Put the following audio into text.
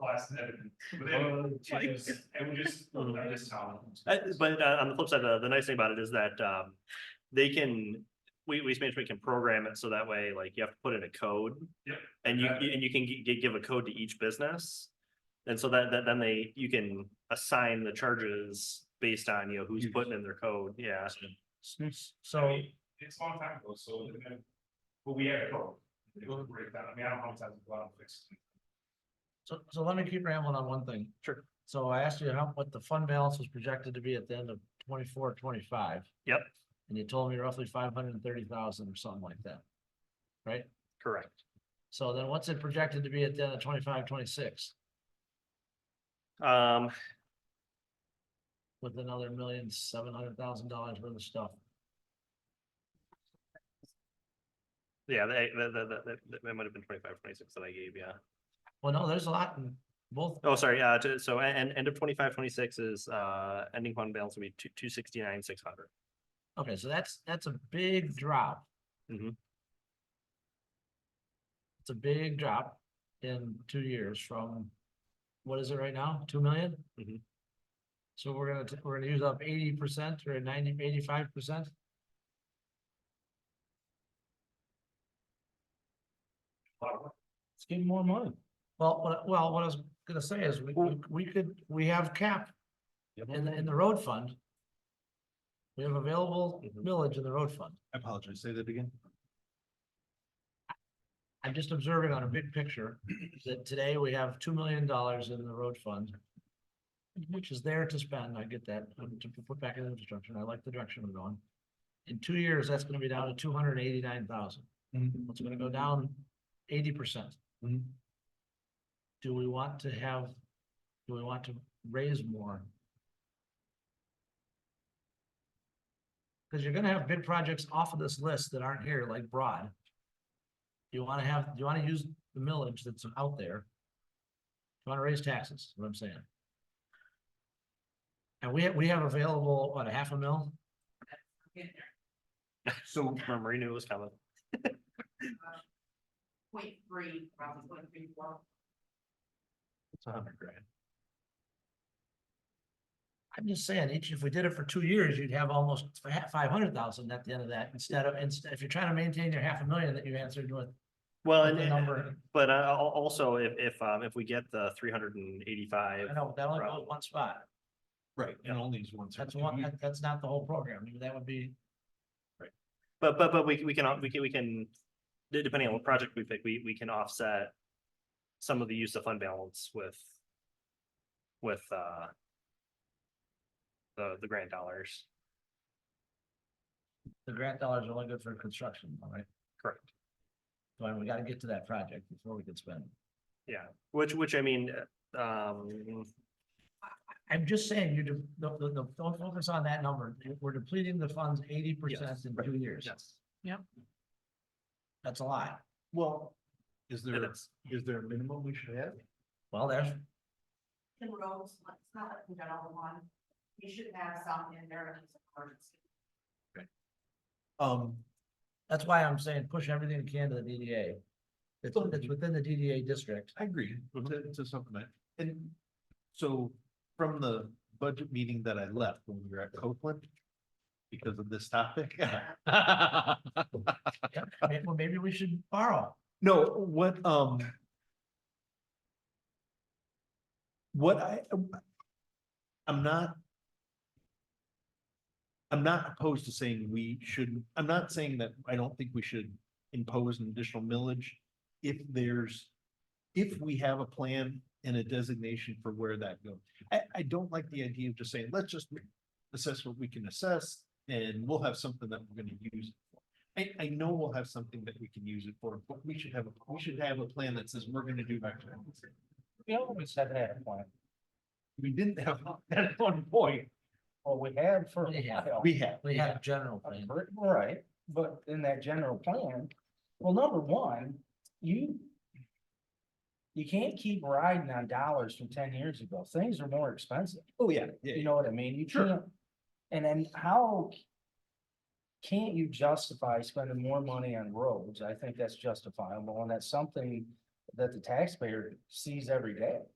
last minute. But then, and we just, I just tell Oh, Uh, them. But uh, on the flip side, the, the nice thing about it is that, um, they can, we, waste management can program it so that way, like, you have to put in a code. Yep. And you, Okay. and you can gi- give a code to each business. And so that, that, then they, you can assign the charges based on, you know, who's Use. putting in their code, yeah. I So, mean, It's a long time ago, so, and then- but we had a problem. It was a breakdown. I mean, I don't know how many times we've gone and fixed it. so, so let me keep rambling on one thing. Sure. So I asked you how, what the fund balance was projected to be at the end of 24, 25, Yep, and you told me roughly five hundred and thirty thousand or something like that. Right? correct. So then what's it projected to be at the end of 25, 26 Um, with another million, seven hundred thousand dollars worth of stuff? yeah, they, that, that, that, that- that might have been twenty-five, twenty-six that I gave, yeah. Well, no, there's a lot in both, Oh, sorry, uh, to- so, a- and, end of twenty-five, twenty-six is, uh, ending fund balance will be two, two sixty-nine, six hundred. okay, so that's, that's a big drop. Mhm. It's a big drop in two years from, what is it right now, two million? Mhm. So we're gonna, t- we're gonna use up eighty percent or ninety, eighty-five percent? A lot of work. It's getting more money. Well, what, well, what I was gonna say is, we, we- we could, we have cap in, the- in the road fund. We have available Mhm. millage in the road fund. Mm-hmm. I apologize, say that again. I'm just observing on a big picture that today we have two million dollars in the road fund. Which is there to spend, I get that, um, to put back in infrastructure, and I like the direction we're going. In two years, that's gonna be down to two hundred and eighty-nine thousand, Mm-hmm. it's gonna go down eighty percent. Mhm. Do we want to have, do we want to raise more? Cause you're gonna have big projects off of this list that aren't here, like Broad. Do you wanna have, do you wanna use the millage that's out there? Do you wanna raise taxes, is what I'm saying? And we, we have available, what, a half a mil? So, Marie knew it was coming. Point three, probably point three four. It's a hundred grand. I'm just saying, each, if we did it for two years, you'd have almost five hundred thousand at the end of that, instead of, instead, if you're trying to maintain your half a million that you answered with. Well, Uh, with and, the and- number, but uh, al- also if, if, um, if we get the three hundred and eighty-five, I know, that only goes one spot, right, and only these ones. that's one, that- that's not the whole program, I mean, that would be, but, but, but we, we can, we can, we can, de- depending on what project we pick, we, we can offset some of the use of fund balance with, with, uh, the, the grant dollars, the grant dollars are only good for construction, all right? correct? But we gotta get to that project before we can spend. Which, which I mean, uh, um, I'm just saying, you, de- the, the, the, don't focus on that number, we're depleting the funds eighty percent in two years, yes, that's a lot. Well, is it there, is. is there a minimum we should have? Well, there's, The roads, like, it's not like we got all the one. We should have some in there. if it's an emergency. Um, That's why I'm saying push everything you can to the DDA. It's, it's within the DDA district. I agree to, to supplement, and so from the budget meeting that I left when we were at Copeland. Because of this topic. May- Well, maybe we should borrow. No, what, um. What I, I'm not. I'm not opposed to saying we shouldn't, I'm not saying that I don't think we should impose an additional millage. If there's, if we have a plan and a designation for where that goes. I, I don't like the idea of just saying, let's just assess what we can assess and we'll have something that we're gonna use. it for." I, I know we'll have something that we can use it for, but we should have, a we should have a plan that says we're gonna do that. We always had that point. We didn't have that at one point. Well, we had for. a Yeah. while. We have. We had a general plan. Right, but in that general plan, well, number one, you. You can't keep riding on dollars from ten years ago. Things are more expensive. Oh, yeah, yeah, You yeah. know what I mean? You Sure. can't. And then how? Can't you justify spending more money on roads? I think that's justifiable and that's something that the taxpayer sees every day.